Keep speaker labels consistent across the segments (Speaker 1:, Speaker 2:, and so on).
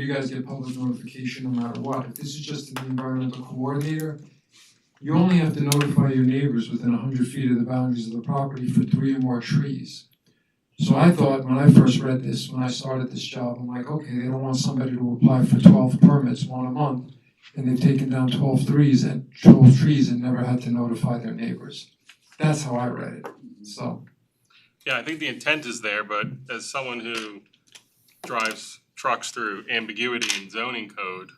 Speaker 1: you guys get public notification no matter what, if this is just the environmental coordinator, you only have to notify your neighbors within hundred feet of the boundaries of the property for three or more trees. So I thought, when I first read this, when I started this job, I'm like, okay, they don't want somebody to apply for twelve permits, one a month, and they've taken down 12 threes and twelve trees and never had to notify their neighbors. That's how I read it, so,
Speaker 2: Yeah, I think the intent is there, but as someone who drives trucks through ambiguity in zoning code,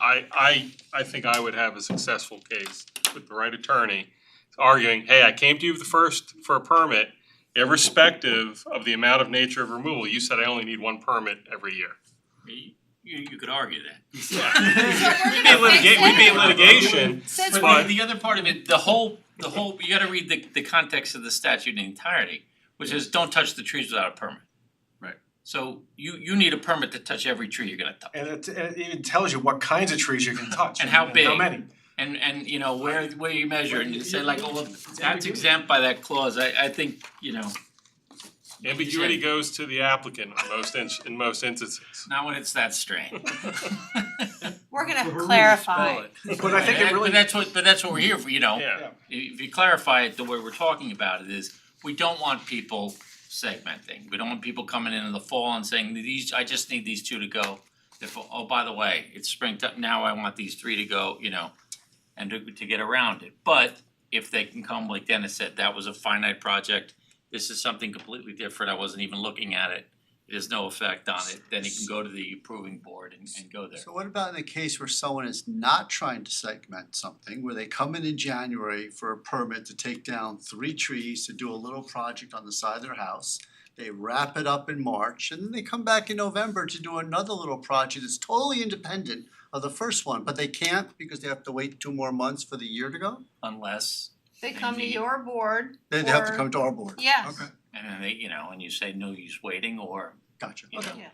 Speaker 2: I I I think I would have a successful case with the right attorney arguing, hey, I came to you the first for a permit, irrespective of the amount of nature of removal, you said I only need one permit every year.
Speaker 3: You, you could argue that.
Speaker 2: We'd be in litigation, we'd be in litigation,
Speaker 4: Since
Speaker 3: But
Speaker 2: But-
Speaker 3: the, the other part of it, the whole, the whole, you gotta read the, the context of the statute in entirety, which is don't touch the trees without a permit.
Speaker 5: Right.
Speaker 3: So you, you need a permit to touch every tree you're gonna touch,
Speaker 5: And it it even tells you what kinds of trees you can touch.
Speaker 3: And how
Speaker 5: How
Speaker 3: big.
Speaker 5: many.
Speaker 3: and, and, you know, where, where you measure, and you say like, oh, look, that's
Speaker 5: ambiguous.
Speaker 3: exempt by that clause, I, I think, you know,
Speaker 2: ambiguity goes to the applicant in most in in most instances.
Speaker 3: not when it's that strain.
Speaker 4: We're gonna clarify.
Speaker 5: But I think it really,
Speaker 3: But that's what, but that's what we're here for, you know,
Speaker 2: Yeah,
Speaker 3: if you clarify it, the way we're talking about it is, we don't want people segmenting. We don't want people coming in in the fall and saying, these, I just need these two to go. If, oh, by the way, it's springtime, now I want these three to go, you know, and to to get around it. But if they can come, like Dennis said, that was a finite project, this is something completely different, I wasn't even looking at it. There's no effect on it, then it can go to the approving board and and go there.
Speaker 6: So what about in the case where someone is not trying to segment something, where they come in in January for a permit to take down three trees to do a little project on the side of their house? They wrap it up in March and then they come back in November to do another little project that's totally independent of the first one, but they can't because they have to wait two more months for the year to go?
Speaker 3: Unless,
Speaker 4: They come to your board
Speaker 6: Then they have to
Speaker 4: Or-
Speaker 6: come to our board?
Speaker 4: Yes.
Speaker 6: Okay,
Speaker 3: and then they, you know, and you say, no use waiting, or,
Speaker 6: gotcha,
Speaker 3: you know.
Speaker 6: okay.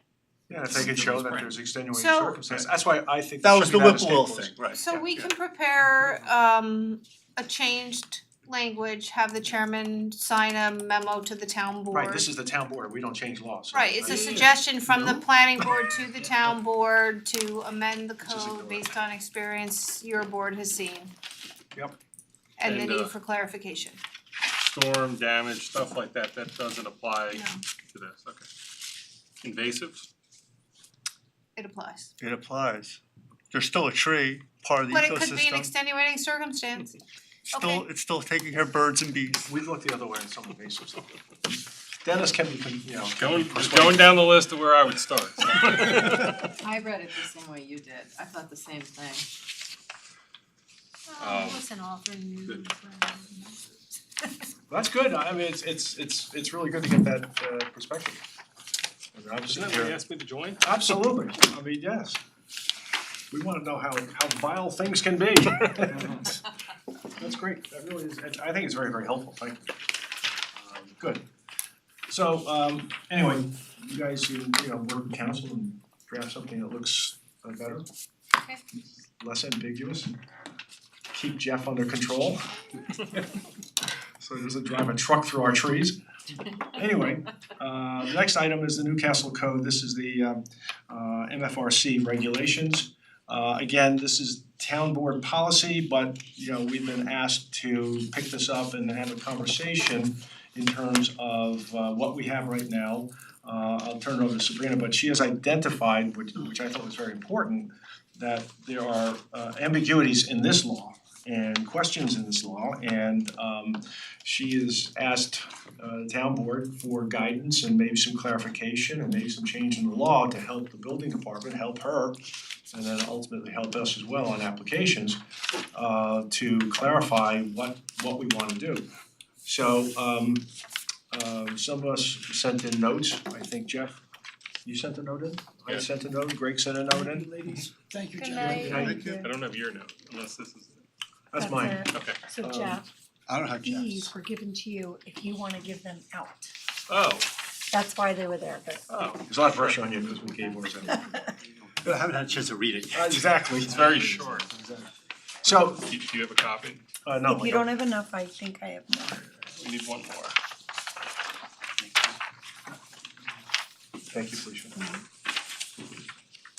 Speaker 5: yeah, if they could show that there's extenuating
Speaker 4: So-
Speaker 5: circumstances, that's why I think
Speaker 6: That
Speaker 5: there
Speaker 6: was
Speaker 5: should
Speaker 6: the
Speaker 5: be not
Speaker 6: Whipple
Speaker 5: escape
Speaker 6: thing,
Speaker 5: clause.
Speaker 6: right.
Speaker 4: So
Speaker 5: Yeah,
Speaker 4: we
Speaker 5: yeah.
Speaker 4: can prepare um a changed language, have the chairman sign a memo to the town board.
Speaker 5: Right, this is the town board, we don't change laws.
Speaker 4: Right, it's a
Speaker 5: Right.
Speaker 4: suggestion from the planning board to the town board to amend the
Speaker 5: Just ignore
Speaker 4: code
Speaker 5: it.
Speaker 4: based on experience your board has seen.
Speaker 5: Yep.
Speaker 4: And the
Speaker 2: And,
Speaker 4: need
Speaker 2: uh,
Speaker 4: for clarification.
Speaker 2: storm damage, stuff like that, that doesn't apply
Speaker 4: No,
Speaker 2: to this, okay. Invasives?
Speaker 4: it applies.
Speaker 6: It applies. There's still a tree, part of
Speaker 4: But it could be an extenuating circumstance. Still- okay.
Speaker 6: it's still taking care of birds and bees.
Speaker 5: We look the other way in some invasive stuff. Dennis can be, con- you know.
Speaker 2: Going, just going down the list of where I would start.
Speaker 7: I read it the same way you did, I thought the same thing.
Speaker 2: Um,
Speaker 4: listen, all for new.
Speaker 5: That's good, I mean, it's it's it's it's really good to get that uh perspective. I mean, I'm
Speaker 2: Isn't
Speaker 5: sitting
Speaker 2: that what
Speaker 5: here-
Speaker 2: you asked me to join?
Speaker 5: Absolutely, I mean, yes. We wanna know how how vile things can be. That's great, that really is, I think it's very, very helpful, thank you. Um, Good. So um anyway, you guys, you you know, work with council and draft something that looks uh, better.
Speaker 4: Okay.
Speaker 5: Less ambiguous. Keep Jeff under control. So he doesn't drive a truck through our trees. Anyway, uh the next item is the Newcastle Code, this is the um uh MFRC regulations. Uh again, this is town board policy, but you know, we've been asked to pick this up and have a conversation in terms of uh what we have right now. Uh I'll turn it over to Sabrina, but she has identified, which which I thought was very important, that there are uh ambiguities in this law and questions in this law and um she has asked uh the town board for guidance and maybe some clarification and maybe some change in the law to help the building department, help her and then ultimately help us as well on applications uh to clarify what what we wanna do. So um um some of us sent in notes, I think Jeff, you sent a note in? I
Speaker 2: Yeah.
Speaker 5: sent a note, Greg sent a note in,
Speaker 8: Ladies, thank you,
Speaker 7: Good
Speaker 8: Jeff.
Speaker 7: night.
Speaker 5: Thank
Speaker 8: you.
Speaker 2: I don't have your note, unless this is,
Speaker 5: that's mine.
Speaker 2: okay.
Speaker 8: So
Speaker 5: Um,
Speaker 8: Jeff,
Speaker 6: I don't have
Speaker 8: these
Speaker 6: jobs.
Speaker 8: were given to you if you wanna give them out.
Speaker 2: Oh,
Speaker 8: That's why they were there, but
Speaker 2: oh,
Speaker 5: There's a lot of pressure on you because we gave ours out.
Speaker 6: I haven't had a chance to read it yet.
Speaker 5: Exactly.
Speaker 2: it's very short.
Speaker 5: So,
Speaker 2: Do do you have a copy?
Speaker 5: uh no,
Speaker 8: if you don't have enough, I think I have more.
Speaker 2: We need one more.
Speaker 5: Thank you, Felicia.